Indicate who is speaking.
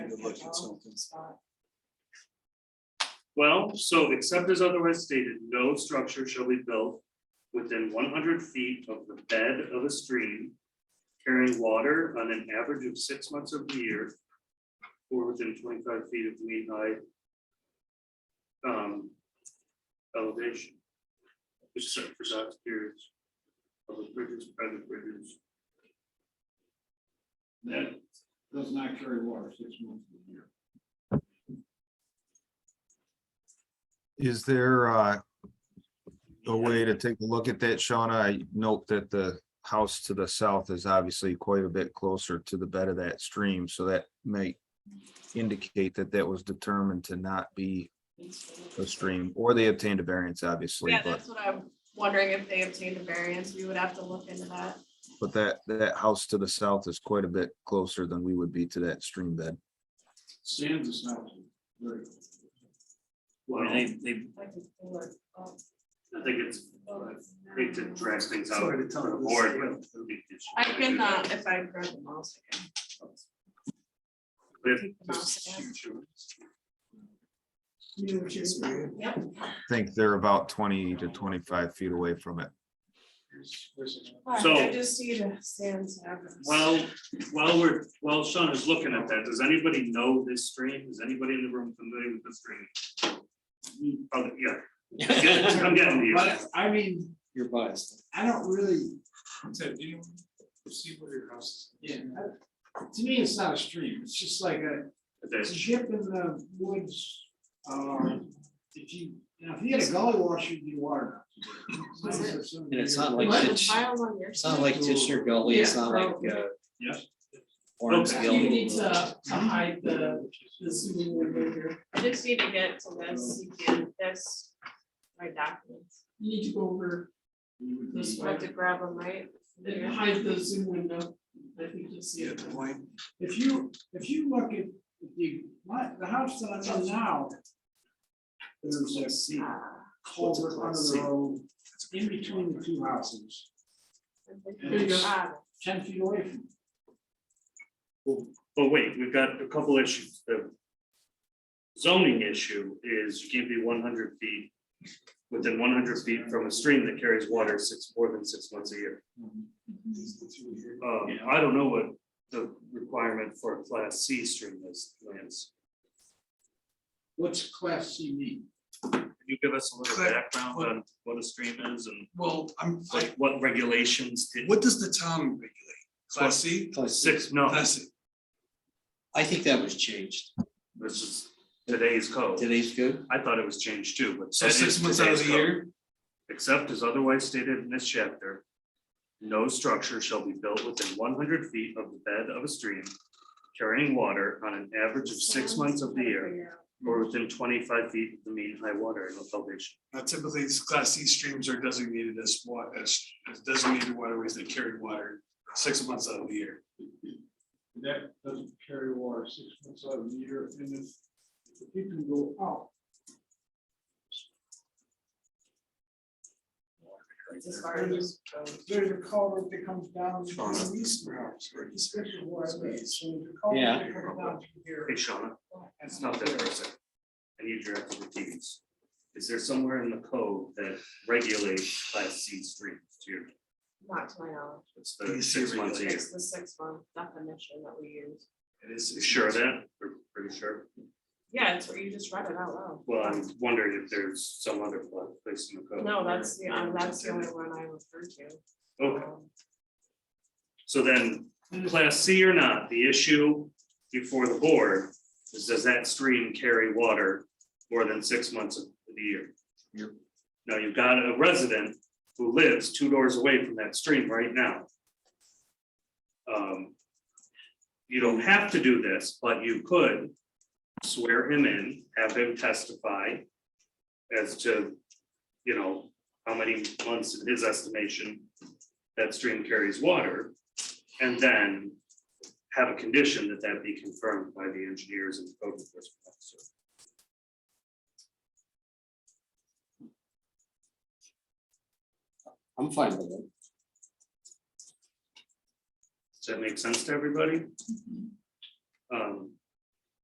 Speaker 1: looked at something.
Speaker 2: Well, so except as otherwise stated, no structure shall be built within one hundred feet of the bed of a stream carrying water on an average of six months of the year or within twenty-five feet of mean high um, elevation. Except for such periods of the bridges, private bridges.
Speaker 3: that does not carry water six months of the year.
Speaker 4: Is there uh, a way to take a look at that, Shauna? I note that the house to the south is obviously quite a bit closer to the bed of that stream, so that might indicate that that was determined to not be a stream, or they obtained a variance, obviously,
Speaker 5: Yeah,
Speaker 4: but,
Speaker 5: that's what I'm wondering if they obtained a variance, we would have to look into that.
Speaker 4: but that, that house to the south is quite a bit closer than we would be to that stream bed.
Speaker 3: Sands is not very.
Speaker 2: Well, I think
Speaker 5: Like, it's more, um,
Speaker 2: it's, I hate to drag things out
Speaker 1: Sorry to
Speaker 2: for
Speaker 1: tell you
Speaker 2: the
Speaker 1: this.
Speaker 2: board, but it'll be-
Speaker 5: I can, uh, if I grab the mouse again.
Speaker 2: But
Speaker 5: Take the mouse
Speaker 2: this
Speaker 5: again.
Speaker 2: is true.
Speaker 5: Yep.
Speaker 4: Think they're about twenty to twenty-five feet away from it.
Speaker 5: Alright,
Speaker 2: So-
Speaker 5: I just need a sans address.
Speaker 2: While, while we're, while Sean is looking at that, does anybody know this stream? Is anybody in the room familiar with this stream? Hmm, Oh, yeah, Yeah, I'm getting to you.
Speaker 3: But I mean,
Speaker 1: You're biased.
Speaker 3: I don't really. Ted, do you see where your house is? Yeah. I- To me, it's not a stream. It's just like a,
Speaker 2: okay.
Speaker 3: it's a ship in the woods. Um, if you, you know, if you had a gully wash, you'd be water.
Speaker 1: And it's not like
Speaker 5: What, the
Speaker 1: Titch-
Speaker 5: files on your
Speaker 1: It's not
Speaker 5: side?
Speaker 1: like Tishner Gully, it's
Speaker 6: Yeah,
Speaker 1: not like, uh.
Speaker 3: Yeah.
Speaker 2: Okay.
Speaker 6: You need to to hide the, the swimming window here.
Speaker 5: I just need to get to this, you can, this, my documents,
Speaker 6: You need to go over this
Speaker 5: I have
Speaker 6: way
Speaker 5: to grab them, right?
Speaker 6: and hide the zoom window. I think you'll see it.
Speaker 3: If you, if you look at the, my, the house that I'm in now. There's a sea culvert under the road, in between the two houses,
Speaker 6: There you go.
Speaker 5: Ah,
Speaker 3: ten feet away from.
Speaker 2: But wait, we've got a couple issues. The zoning issue is you can't be one hundred feet within one hundred feet from a stream that carries water six, more than six months a year. Um, I don't know what the requirement for a class C stream is, Lance.
Speaker 3: What's class C mean?
Speaker 2: Can you give us a little background on what a stream is and
Speaker 7: Well, I'm like,
Speaker 2: like what regulations did?
Speaker 7: what does the town regulate? Class C?
Speaker 2: Six, no,
Speaker 7: Class C.
Speaker 1: I think that was changed.
Speaker 2: this is today's code.
Speaker 1: Today's good.
Speaker 2: I thought it was changed too, but
Speaker 7: So
Speaker 2: that is
Speaker 7: six months out of
Speaker 2: today's
Speaker 7: the
Speaker 2: code.
Speaker 7: year?
Speaker 2: Except as otherwise stated in this chapter, no structure shall be built within one hundred feet of the bed of a stream carrying water on an average of six months of the year or within twenty-five feet of the mean high water elevation.
Speaker 7: Now typically, these class C streams are designated as wa, as as designated waterways that carry water six months out of the year.
Speaker 3: That doesn't carry water six months out of the year, and if, if you can go out.
Speaker 5: It's as far as.
Speaker 3: There's a culvert that comes down to
Speaker 2: Sean,
Speaker 3: the east now, it's especially where I live, so there's a culvert
Speaker 1: Yeah.
Speaker 3: that comes down to here.
Speaker 2: Hey, Shauna, that's not that person. I need your expertise. Is there somewhere in the code that regulates class C streams to your,
Speaker 5: Not to my knowledge,
Speaker 2: it's the
Speaker 7: DC
Speaker 2: six months a year?
Speaker 5: it's the six month definition that we use.
Speaker 2: It is. You sure of that? We're Pretty sure.
Speaker 5: Yeah, it's where you just read it out loud.
Speaker 2: Well, I'm wondering if there's some other place in the code.
Speaker 5: No, that's the, um, that's the only one I refer to.
Speaker 2: Okay,
Speaker 5: Um,
Speaker 2: so then, class C or not, the issue before the board is does that stream carry water more than six months of the year?
Speaker 1: Yep.
Speaker 2: Now, you've got a resident who lives two doors away from that stream right now. Um, You don't have to do this, but you could swear him in, have him testify as to, you know, how many months in his estimation that stream carries water. And then have a condition that that be confirmed by the engineers and code enforcement officer.
Speaker 1: I'm fine with it.
Speaker 2: Does that make sense to everybody? Um,